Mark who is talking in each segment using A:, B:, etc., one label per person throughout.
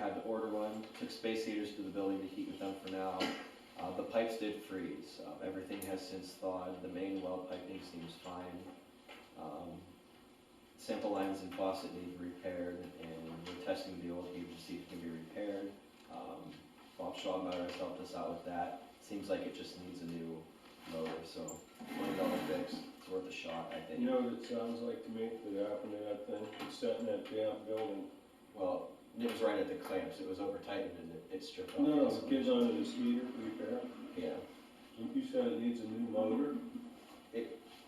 A: had to order one, took space heaters to the building to heat with them for now. Uh, the pipes did freeze, uh, everything has since thawed, the main well piping seems fine. Um, Sample lines and faucet need repaired, and we're testing the old heater to see if it can be repaired. Um, Bob Schwabmeyer has helped us out with that, seems like it just needs a new motor, so twenty dollar fix, it's worth a shot, I think.
B: You know what it sounds like to me that happened to that thing, it's setting that damn building.
A: Well, it was right at the clamps, it was over tightened and it- it stripped off. the
B: No, it
A: insulation.
B: gets onto this heater repair.
A: Yeah,
B: You said it needs a new motor?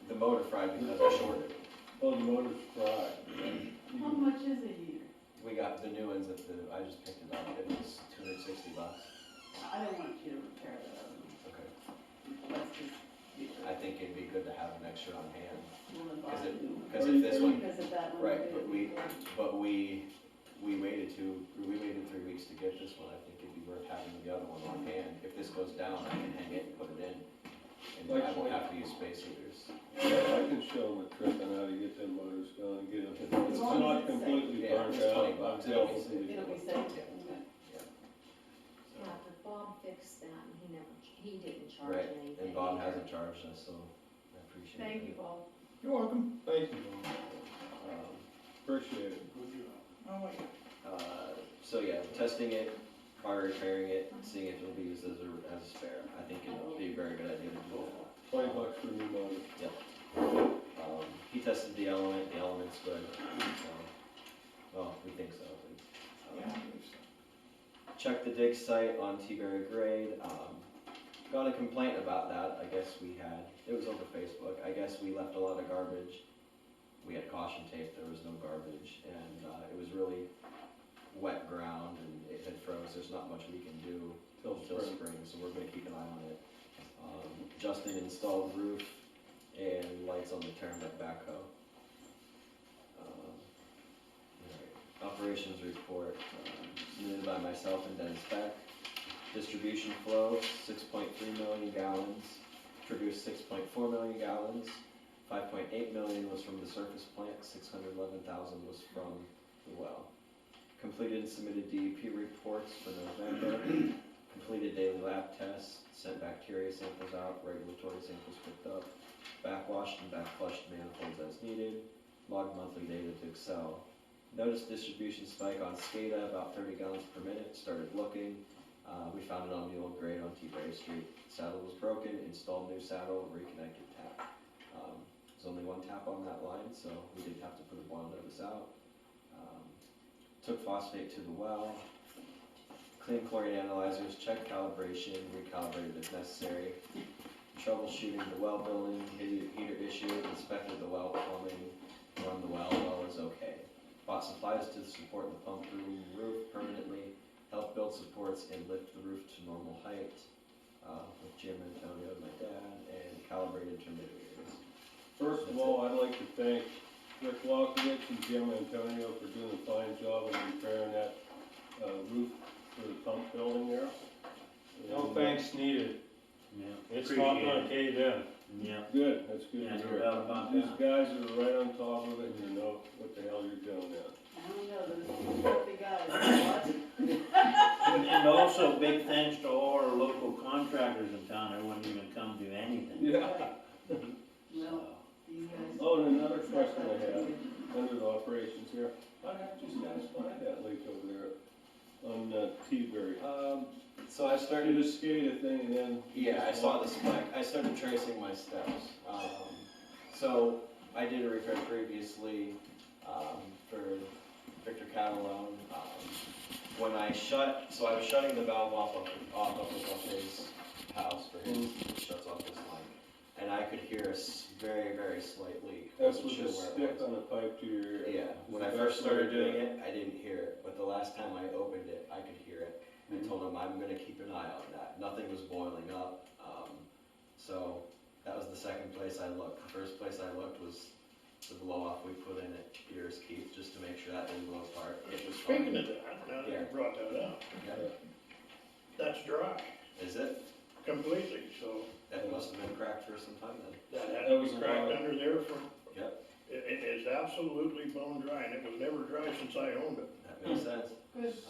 A: the motor fried because it shorted.
B: Oh, the motor's fried.
C: How
A: Mm-hmm.
C: much is a year?
A: We got the new ones at the, I just picked it up, it was two hundred sixty bucks.
C: I don't want you to repair that oven.
A: Okay.
C: Let's just do
A: I
C: it.
A: think it'd be good to have an extra on hand,
C: We'll
A: cause
C: buy a new
A: it,
C: one.
A: cause if this one,
C: Because of that one.
A: Right,
C: we
A: but
C: did
A: we-
C: before.
A: but we, we waited two, we waited three weeks to get this one, I think it'd be worth having the other one on hand. If this goes down, I can hang it and put it in, and I won't have to use space heaters.
B: Yeah, I can show them a trick on how to get them motors going, get it,
A: As
B: it's
C: long as
B: not
C: it's safe.
B: completely
A: Yeah,
B: burnt
A: it's 20
B: out.
A: bucks,
B: I'm
A: it'll be
B: jealous of
A: safe.
B: you.
C: It'll be safe. Okay.
A: So,
D: Yeah, but Bob fixed that and he never, he didn't charge
A: Right,
D: anything.
A: And Bob
D: either.
A: hasn't charged us, so I appreciate it.
C: Thank you, Paul.
B: You're welcome. Thank you, Norm.
A: Um,
B: appreciate it.
C: Oh, wait.
A: Uh, so yeah, testing it, prior repairing it, seeing if it'll be used as a, as a spare. I think it'll be a very good idea to do it.
B: Twenty bucks for a new motor.
A: Um, he tested the element, the element's good, so, well, we think so at least. Um, Checked the dig site on T-Berry grade, um, got a complaint about that, I guess we had, it was over Facebook, I guess we left a lot of garbage. We had caution tape, there was no garbage, and, uh, it was really wet ground and it had froze, there's not much we can do
B: Till
A: till
B: spring.
A: spring, so we're gonna keep an eye on it. Um, Justin installed roof and lights on the Turnbuck backhoe. Um, alright, Operations report, um, submitted by myself and Dennis Beck. Distribution flow, six point three million gallons, produced six point four million gallons. Five point eight million was from the surface plant, six hundred eleven thousand was from the well. Completed and submitted DEP reports for November completed daily lab tests, sent bacteria samples out, regulatory samples picked up, backwashed and backflushed manifolds as needed, logged monthly data to Excel. Noticed distribution spike on SCADA, about thirty gallons per minute, started looking. Uh, we found it on the old grade on T-Berry Street. Saddle was broken, installed new saddle, reconnected tap. Um, there's only one tap on that line, so we didn't have to put a boil notice out. Um, Took phosphate to the well, Clean chlorine analyzers, check calibration, recalibrated if necessary. Troubleshooting the well building, heater heater issue, inspected the well plumbing, run the well, well is okay. Bought supplies to support the pump room roof permanently, help build supports and lift the roof to normal height, uh, with Jim Antonio, my dad, and calibrated termometers.
B: First of all, I'd like to thank Rick Walkovich and Jim Antonio for doing a fine job of repairing that uh, roof for the pump building there.
E: No
B: And, uh,
E: thanks needed.
F: Yeah.
E: It's not
F: Appreciate
E: gonna cave in.
F: it. Yeah.
B: Good, that's good.
F: Yeah,
B: to
F: no
B: hear.
F: doubt about
B: These
F: that.
B: guys are right on top of it and you know what the hell you're doing now.
C: I don't know, those filthy guys, what?
F: And- And also, big thanks to all our local contractors in town, I wouldn't even come do anything.
C: No,
F: So,
C: these guys.
B: Oh, and another question I have, under the operations here, how the heck did you guys find that leak over there on uh, T-Berry?
A: Um, so I
B: Started the SCADA thing and then.
A: Yeah, I saw the spike. I started tracing my steps. Um, so I did a repair previously um, for Victor Catalone. Um, when I shut, so I was shutting the valve off of, off of, of his house for his,
B: Mm-hmm.
A: he shuts off his line. And I could hear a s- very, very slight leak.
B: That's
A: Wasn't
B: with
A: sure
B: the
A: where it
B: stick
A: was.
B: on the pipe to your ear.
A: Yeah, when I first started doing it, I didn't hear it, but the last time I opened it, I could hear it. I told him I'm gonna keep an eye on that, nothing was boiling up, um, so that was the second place I looked. The first place I looked was the blow off we put in at Pierce Keith, just to make sure that didn't blow apart. It was fine.
E: Speaking of that, now that
A: Yeah.
E: you brought that up,
A: Yeah.
E: that's dry
A: Is it?
E: completely, so
A: That must have been cracked for some time then.
E: that had
B: That
E: to
B: was
E: be
B: a
E: cracked
B: lot.
E: under there for.
A: Yep.
E: It, it is absolutely bone dry and it was never dry since I owned it.
A: Hmm. That makes sense.
C: Good.